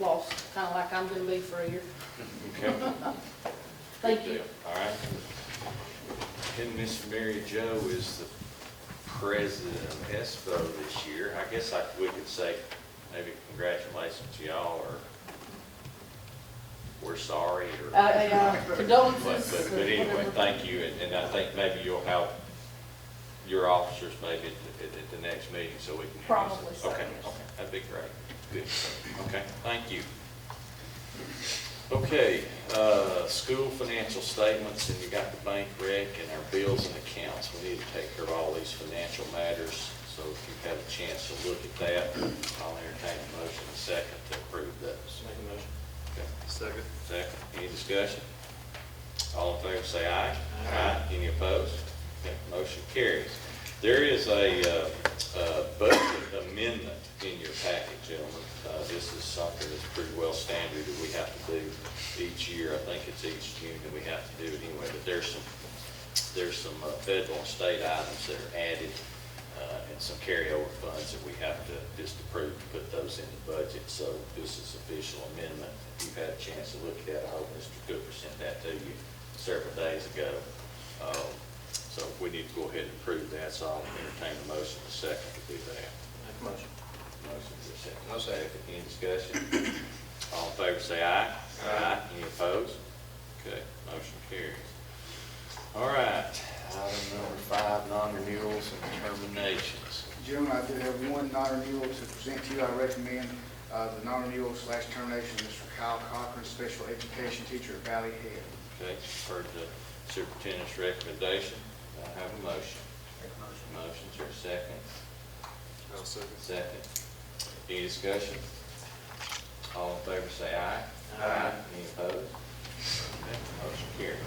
lost, kind of like I'm gonna be for a year. Okay. Thank you. All right. And Miss Mary Jo is the president of ESPO this year. I guess like we could say maybe congratulations to y'all or we're sorry or. Uh, yeah, But, Condolences. but but anyway, whatever. thank you, and, and I think maybe you'll have your officers maybe at, the- at, at the next meeting, so we can. introduce them. Probably so, Okay, yes. okay, that'd be great, good, okay, thank you. Okay, uh, school financial statements, and you got the bank rec and our bills and accounts, we need to take care of all these financial matters, so if you've had a chance to look at that, I'll entertain a motion in a second to approve those. Make a motion. Okay. Second. Second, any discussion? All in favor, say aye. Aye. Any opposed? Okay, Motion carries. There is a uh, uh, budget amendment in your packet, gentlemen. Uh, This is something that's pretty well standard that we have to do each year. I think it's each June that we have to do it anyway, but there's some, there's some uh, federal and state items that are added uh, and some carryover funds that we have to just approve to put those in the budget. So this is official amendment. If you've had a chance to look at it, I hope Mr. Cooper sent that to you several days ago. Um, So we need to go ahead and approve that, so I'll entertain a motion in a second to do that. Make a motion. Motion for a second. I'll second. Any discussion? All in favor, say aye. Aye. Any opposed? Okay, motion carries. All right, item number five, non-renewals and terminations. Gentlemen, I do have one non-renewal to present to you. I recommend uh, the non-renewal slash termination of Mr. Kyle Cochran, special education teacher at Valley Head. Okay, heard the superintendent's recommendation. Do I have a motion. Motion's your second. I'll second. Second. Any discussion? All in favor, say aye. Aye. Any opposed? Okay, Motion carries.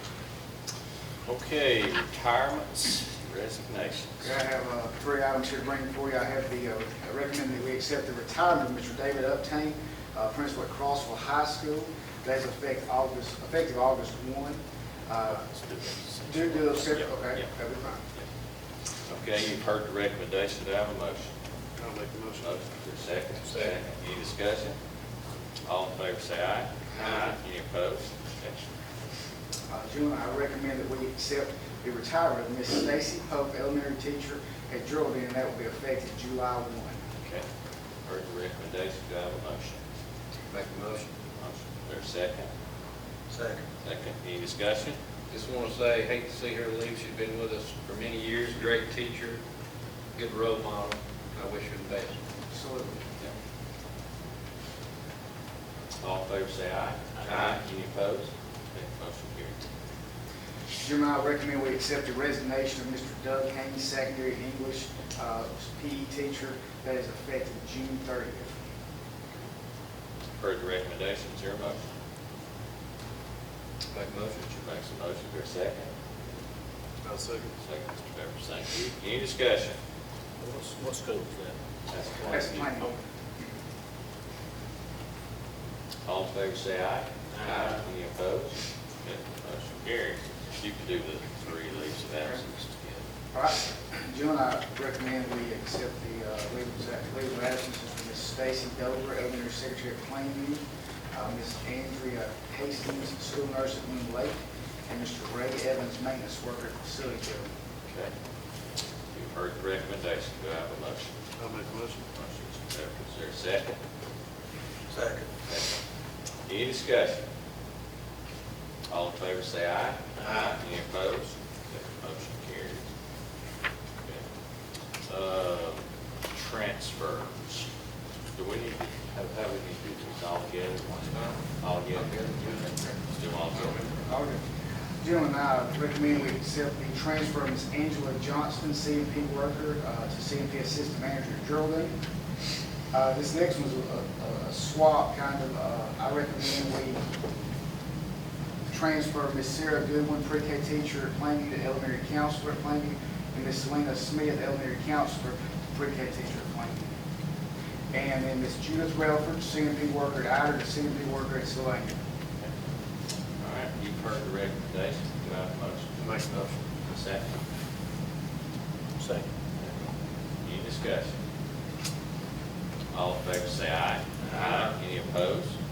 Okay, retirements, resignations. Okay, I have uh, three items here to bring before you. I have the, uh, I recommend that we accept the retirement of Mr. David Uptain, uh, principal at Crossville High School. That's effective August, effective August 1. Uh, Let's do this. Do do those separate, Yeah, okay, yeah. that'd be fine. Okay, you've heard the recommendation. Do I have a motion? I'll make a motion. Motion for second. Second. Any discussion? All in favor, say aye. Aye. Any opposed? Okay. Uh, Gentlemen, I recommend that we accept the retirement of Miss Stacy Pope, elementary teacher at Geraldine, and that will be effective July 1. Okay, heard the recommendation, do I have a motion? Make a motion. Motion, there's a second? Second. Second, any discussion? Just want to say, hate to see her leave, she's been with us for many years, great teacher, good role model, I wish her the best. Absolutely. All in favor, say aye. Aye. Any opposed? Okay, motion carries. Gentlemen, I recommend we accept the resignation of Mr. Doug Haynes, secondary English uh, PE teacher, that is effective June 30th. Heard the recommendation, is there a motion? Make a motion. Mr. makes a motion, there's a second? I'll second. Second, Mr. Pepper, thank you. Any discussion? What's, what school is That's That's planning. All in favor, say aye. Aye. Any opposed? Okay, motion carries. You can do the three leaves of absence again. All right, gentlemen, I recommend we accept the uh, leave of leave of absence from Miss Stacy Dover, elementary secretary at Plainview, uh, Miss Andrea Hastings, school nurse at Moon Lake, and Mr. Ray Evans, maintenance worker at facility building. Okay. You've heard the recommendation, do I have a motion? that? I'll make a motion. Motion, Mr. Pepper, is there a second? Second. Second. Any discussion? All in favor, say aye. Aye. Any opposed? Okay, Motion carries. Okay. Uh, Transfers. Do we need, to- how, how we need to do this all together? All together? Let's do all together. Okay. Gentlemen, I recommend we accept the transfer of Ms. Angela Johnston, CMP worker, uh, to CMP assistant manager at Geraldine. Uh, This next one's a- a- a swap, kind of, uh, I recommend we transfer Ms. Sarah Goodwin, pre-K teacher at Plainview, to elementary counselor at Plainview, and Ms. Selena Smith, elementary counselor, to pre-K teacher at Plainview. And then Ms. Judith Relford, CMP worker at Ider, to CMP worker at Sylvania. All right, you've heard the recommendation, do I have a motion? Make a motion. A Second. Second. Any discussion? All in favor, say aye. Aye. Aye. Any opposed?